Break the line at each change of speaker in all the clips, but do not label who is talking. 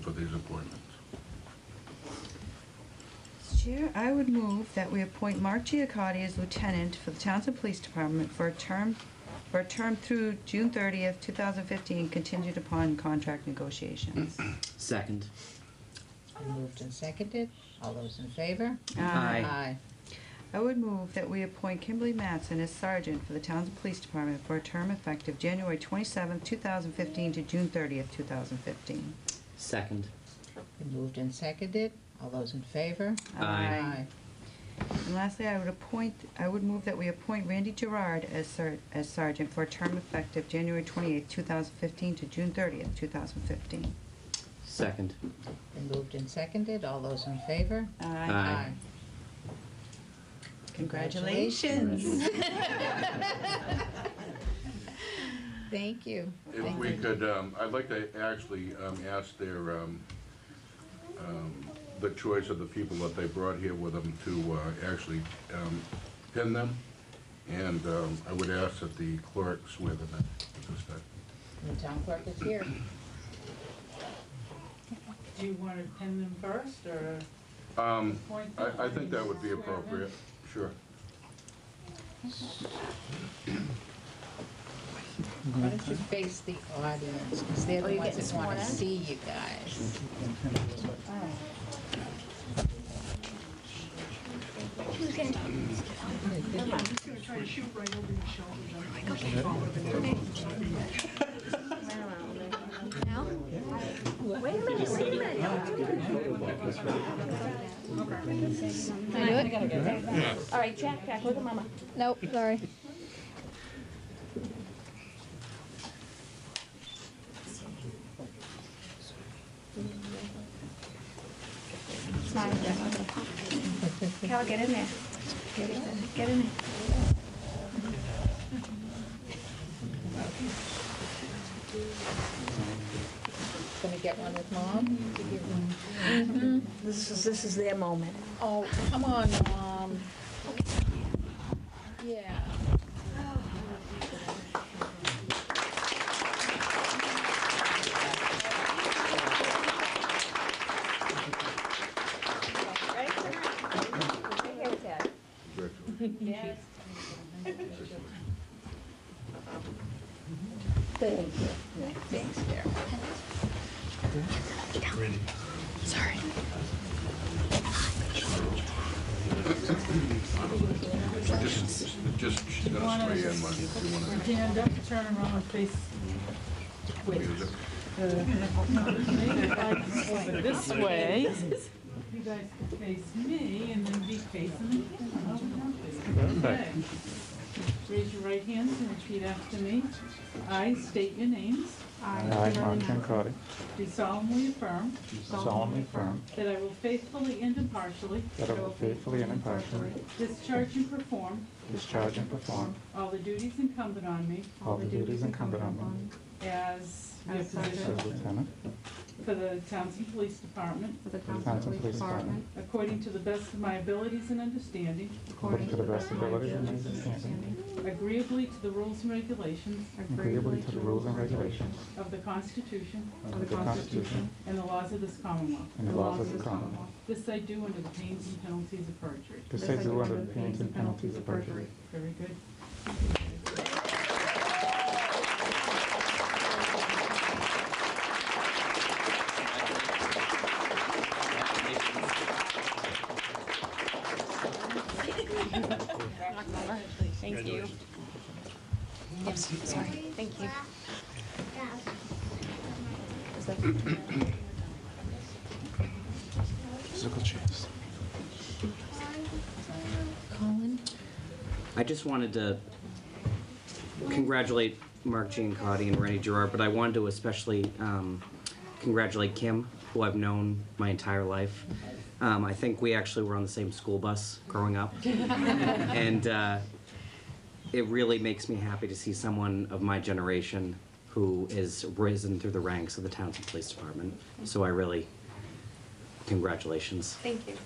for these appointments.
Chair, I would move that we appoint Mark Giacotti as lieutenant for the Townsend Police Department for a term, for a term through June 30th, 2015, contingent upon contract negotiations.
Second.
Moved and seconded. All those in favor?
Aye.
Uh, I would move that we appoint Kimberly Matson as sergeant for the Townsend Police Department for a term effective January 27th, 2015 to June 30th, 2015.
Second.
Been Moved and seconded. All those in favor?
Aye.
And lastly, I would appoint, I would move that we appoint Randy Gerard as ser, as sergeant for a term effective January twenty-eighth, two thousand fifteen to June thirtieth, two thousand fifteen.
Second.
Been moved and seconded. All those in favor?
Aye.
Congratulations. Thank you.
If
Thank
we
you.
could, um, I'd like to actually um, ask their, um, um, the choice of the people that they brought here with them to uh, actually um, pin them, and um, I would ask that the clerk swear them in at this time.
The town clerk is here.
Do you want to pin them first, or?
Um,
appoint them?
I I think that would be appropriate, sure.
Why don't you face the audience? Because they're the ones that want to see you guys.
Who's gonna talk?
Try to shoot right over your shoulder.
No? Wait a minute, wait a minute. Can I do it? All right, Jack, Jack, look at Mama.
Nope, sorry.
Smile, Jack. Cal, get in there. Get in there. Get in there.
Gonna get one with mom?
This is, this is their moment.
Oh, come on, mom. Yeah.
Congratulations.
Thanks, Derek.
Just, just, she's gonna swear in, Mike, if you want to
Stand up, turn around, and face. Wait.
use it.
This way. You guys can face me, and then be facing the camera. Okay. Raise your right hands and repeat after me. I state your names.
I, Mark Giancotti,
Do solemnly affirm
solemnly affirm
that I will faithfully and impartially
that I will faithfully and impartially
discharge and perform
discharge and perform
all the duties incumbent on me
all the duties incumbent on me
as your
As sergeant.
position
as lieutenant
For the Townsend Police Department,
For the
of the Townsend Police Department,
according to the best of my abilities and understanding,
according to the best abilities and understanding,
agreeably to the rules and regulations
agreeably to the rules and regulations
of the Constitution
of the Constitution
and the laws of this Commonwealth.
and the laws of the Commonwealth.
This I do under the pains and penalties of perjury.
This I do under the pains and penalties of perjury.
Very good.
Thank you.
Thank you.
Colin?
I just wanted to congratulate Mark Giancotti and Rennie Gerard, but I wanted to especially um, congratulate Kim, who I've known my entire life. Um, I think we actually were on the same school bus growing up. and uh, it really makes me happy to see someone of my generation who has risen through the ranks of the Townsend Police Department. So I really, congratulations.
Thank you.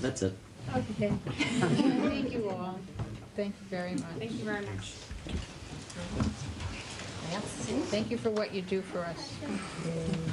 That's it.
Okay. Thank you all. Thank you very much.
Thank you very much.
Thank you for what you do for us.